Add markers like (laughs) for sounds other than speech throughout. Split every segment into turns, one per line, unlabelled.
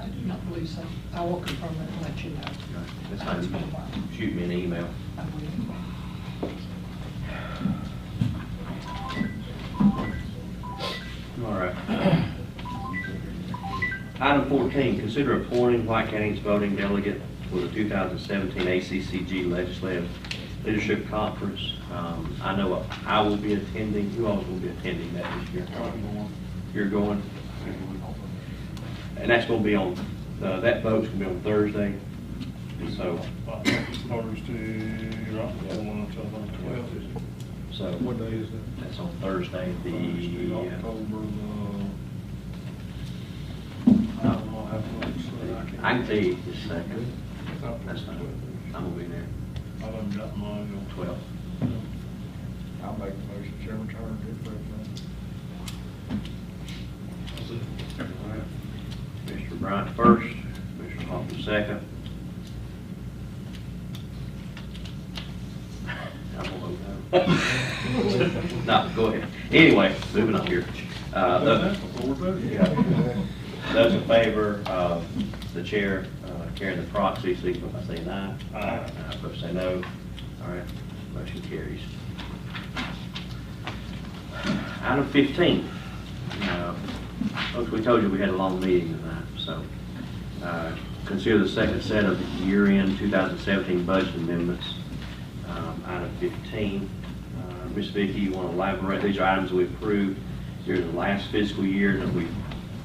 I do not believe so. I will confirm it and let you know.
That's fine. You can Shoot me an email.
I will.
All right. (clears throat) Item 14, consider appointing White County's voting delegate for the 2017 ACCG Legislative Leadership Conference. Um, I know I will be attending, who else will be attending that this year? You're going? And that's going to be on, uh, that vote's going to be on Thursday, and so,
uh, Thursday, right, the one until about twelve, is it?
so.
What day is that?
That's on Thursday,
Thursday,
the, uh,
October the, I don't know how much, so I can't.
I can tell you the second,
It's up to
that's fine, I'm going to be there,
I done got mine on
12.
I'll make the motion, Chairman, turn it
Mr. Bryant first, Mr. Hoffman second. I'm gonna vote no. No, go ahead. Anyway, moving on here. Uh,
Done
the-
that before, buddy?
yeah. Those in favor of the chair uh, carrying the proxy, signify by saying aye.
Aye.
Aye, opposed say no. All right, motion carries. Item 15. Uh, Folks, we told you we had a long meeting tonight, so uh, consider the second set of year-end 2017 budget amendments. Um, Item 15. Uh, Ms. Vicki, you want to elaborate? These are items we approved during the last fiscal year that we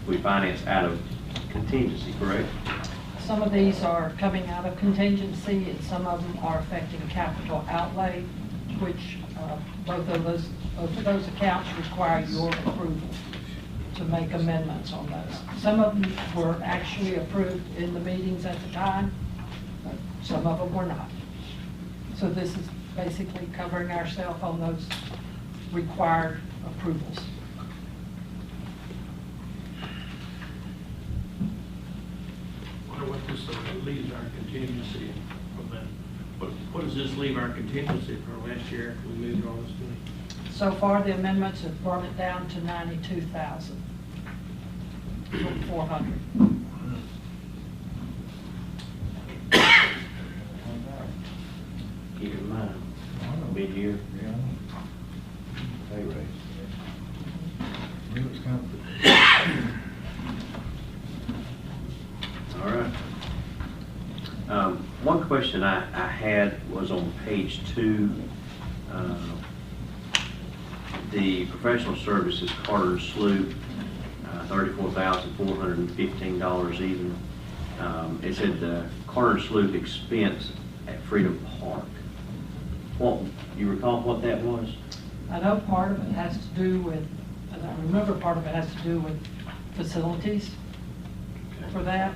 we financed out of contingency, correct?
Some of these are coming out of contingency, and some of them are affecting capital outlay, which uh, both of those, both of those accounts require your approval to make amendments on those. Some of them were actually approved in the meetings at the time, but some of them were not. So this is basically covering ourselves on those required approvals.
wonder what this uh, leaves our contingency from that. What, what does this leave our contingency from last year after we moved all this money?
So far, the amendments have brought it down to ninety-two thousand, four hundred.
Keep in mind, mid-year
Yeah.
pay raise.
It was kind of.
All right. Um, One question I, I had was on page two, uh, the professional services, Carter and Sloop, uh, thirty-four thousand, four hundred and fifteen dollars even. Um, It said the Carter and Sloop expense at Freedom Park. What, you recall what that was?
I know part of it has to do with, and I remember part of it has to do with facilities for that,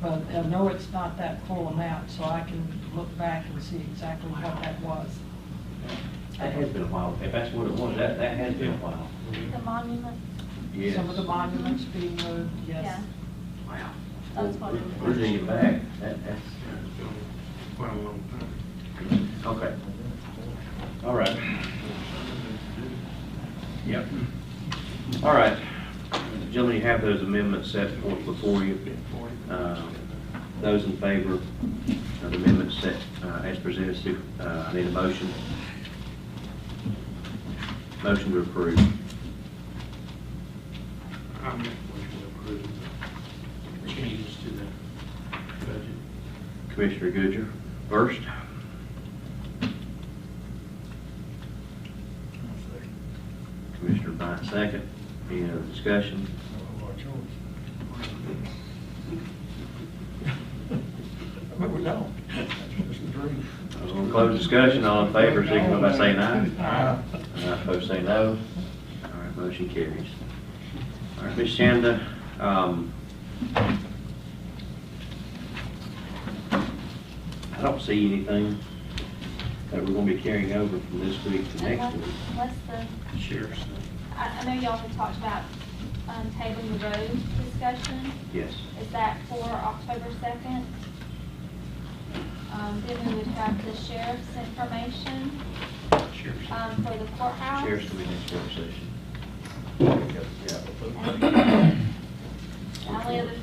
but I know it's not that full amount, so I can look back and see exactly what that was.
That has been a while. If that's what it was, that, that has been a while.
The monument,
Yes.
Some of the monuments being moved, yes.
Yeah.
Wow.
That's what it
We're
was.
digging back. That, that's.
Yeah, it's been Quite a long time.
Okay. All right. Yep. All right. Gentlemen, you have those amendments set forth before you. Uh, Those in favor of the amendments set uh, as presented, uh, I need a motion. Motion to approve.
I make a motion to approve the changes to the budget.
Commissioner Goodger, first. Commissioner Bryant, second. Any other discussion?
(laughs) But we don't. It's a dream.
We'll close discussion. All in favor, signify by saying aye.
Aye.
(laughs) Uh, Opposed, say no. All right, motion carries. All right, Ms. Shanda, um, I don't see anything that we're gonna be carrying over from this week to
And
next
what's,
week.
what's the,
Sheriff's.
I, I know y'all have talked about, um, tabling the road discussion.
Yes.
Is that for October second? Um, then we would have the sheriff's information,
Sheriff's.
um, for the courthouse.
Sheriff's gonna be next work session. Yeah.
And the only other